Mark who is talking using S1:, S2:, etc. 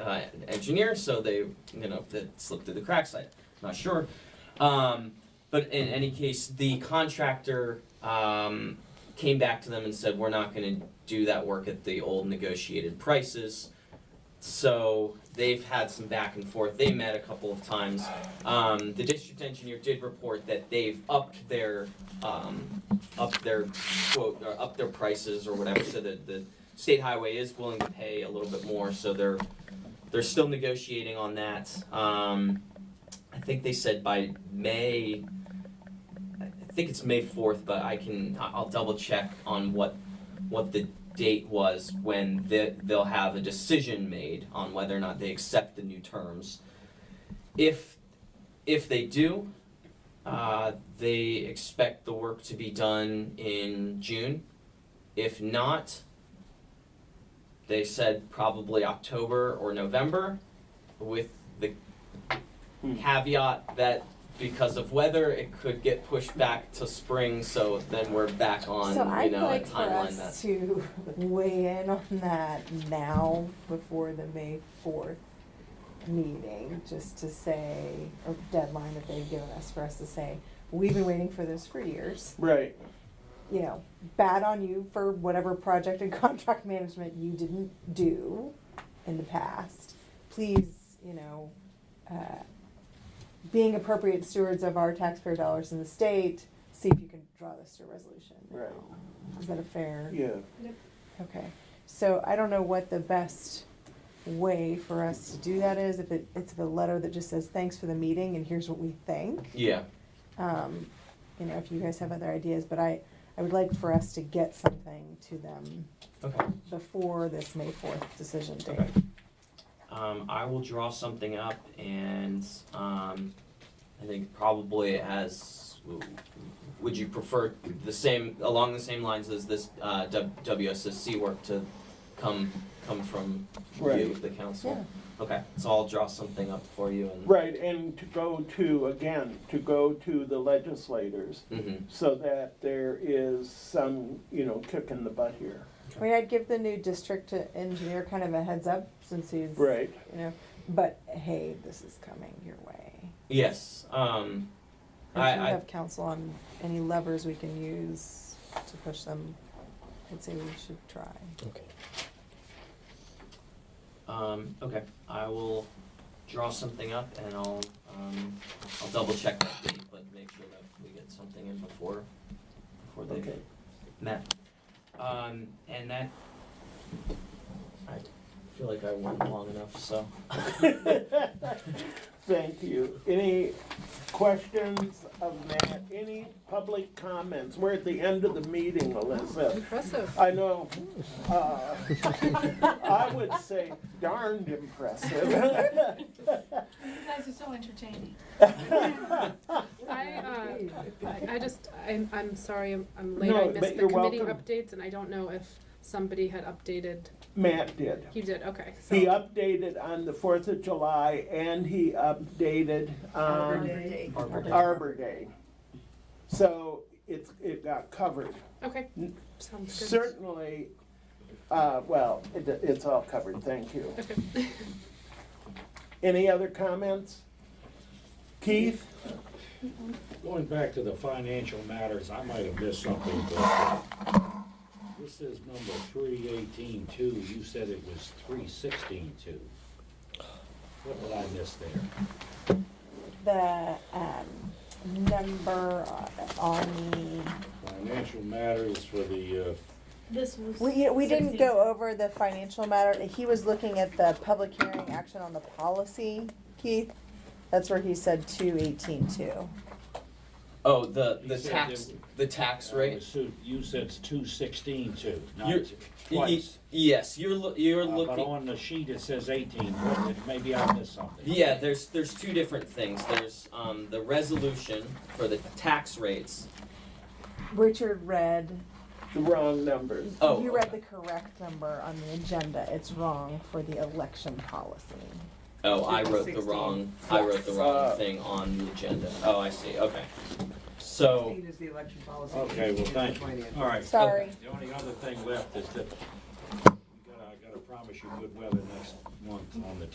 S1: uh, engineer, so they, you know, that slipped through the cracks. I'm not sure. Um, but in any case, the contractor um, came back to them and said, we're not going to do that work at the old negotiated prices. So they've had some back and forth. They met a couple of times. Um, the district engineer did report that they've upped their um, up their quote or up their prices or whatever. So that the state highway is willing to pay a little bit more. So they're they're still negotiating on that. Um, I think they said by May. I think it's May fourth, but I can I- I'll double check on what what the date was when the, they'll have a decision made on whether or not they accept the new terms. If if they do, uh, they expect the work to be done in June. If not, they said probably October or November, with the caveat that because of weather, it could get pushed back to spring. So then we're back on
S2: So
S1: you
S2: I'd
S1: know
S2: like
S1: a
S2: for
S1: timeline that's
S2: us to weigh in on that now before the May fourth meeting, just to say, or deadline that they've given us for us to say, we've been waiting for this for years.
S3: Right.
S2: You know, bad on you for whatever project and contract management you didn't do in the past. Please, you know, uh, being appropriate stewards of our taxpayer dollars in the state, see if you can draw this to a resolution.
S3: Right.
S2: Is that a fair?
S3: Yeah.
S2: Okay, so I don't know what the best way for us to do that is, if it, it's a letter that just says, thanks for the meeting and here's what we think.
S1: yeah.
S2: Um, you know, if you guys have other ideas, but I, I would like for us to get something to them
S1: Okay.
S2: before this May fourth decision date.
S1: Okay. Um, I will draw something up and, um, I think probably as, would you prefer the same, along the same lines as this, uh, W- WSSC work to come, come from you,
S3: Right.
S1: the
S2: Yeah,
S1: council? Okay, so I'll draw something up for you and.
S3: Right, and to go to, again, to go to the legislators
S1: Mhm.
S3: so that there is some, you know, kick in the butt here.
S2: I mean, I'd give the new district engineer kind of a heads up since he's, you
S3: Right.
S2: know, but hey, this is coming your way.
S1: yes, um,
S2: We should
S1: I- I-
S2: have counsel on any levers we can use to push them. I'd say we should try.
S1: um, okay, I will draw something up and I'll, um, I'll double check that date, but make sure that we get something in before, before they.
S3: Okay.
S1: Matt. Um, and that. I feel like I went long enough, so.
S3: Thank you. Any questions of Matt? Any public comments? We're at the end of the meeting, Melissa.
S4: Impressive.
S3: I know, uh, I would say darned impressive.
S4: You guys are so entertaining. I, uh, I I just, I'm, I'm sorry, I'm, I'm late,
S3: No,
S4: I
S3: but
S4: missed the
S3: you're
S4: committee
S3: welcome.
S4: updates, and I don't know if somebody had updated,
S3: Matt did.
S4: you did, okay, so.
S3: He updated on the Fourth of July and he updated um, on
S1: Arbor Day.
S3: Arbor Day. So it's, it got covered.
S4: Okay,
S3: N-
S4: sounds good.
S3: Certainly, uh, well, it, it's all covered, thank you.
S4: Okay.
S3: Any other comments? Keith?
S5: Going back to the financial matters, I might have missed something, but this is number three eighteen two, you said it was three sixteen two. What did I miss there?
S2: The, um, number on
S5: Financial matters for the, uh,
S6: This was.
S2: the, we, we didn't
S6: 16.
S2: go over the financial matter, he was looking at the public hearing action on the policy, Keith. That's where he said two eighteen two.
S1: Oh, the,
S5: He
S1: the
S5: said
S1: tax,
S5: it-
S1: the tax
S5: I
S1: rate?
S5: assume- uh, you said it's two sixteen two, not
S1: You're-
S5: t-
S1: Y- y-
S5: twice.
S1: Yes, you're, loo- you're
S5: Uh, But
S1: looking,
S5: on the sheet, it says eighteen, but it- maybe I missed something.
S1: yeah, there's, there's two different things. There's, um, the resolution for the tax rates.
S2: Richard read,
S3: The wrong numbers.
S1: Oh,
S2: you read
S1: okay.
S2: the correct number on the agenda, it's wrong for the election policy.
S1: Oh, I wrote the
S7: 16.
S1: wrong, I wrote the wrong
S3: Uh,
S1: thing on the agenda. Oh, I see, okay. So,
S7: Sixteen is the election policy.
S5: Okay, well, thank you. All right.
S2: Sorry.
S5: The only other thing left is that, we gotta- I gotta promise you good weather next month on the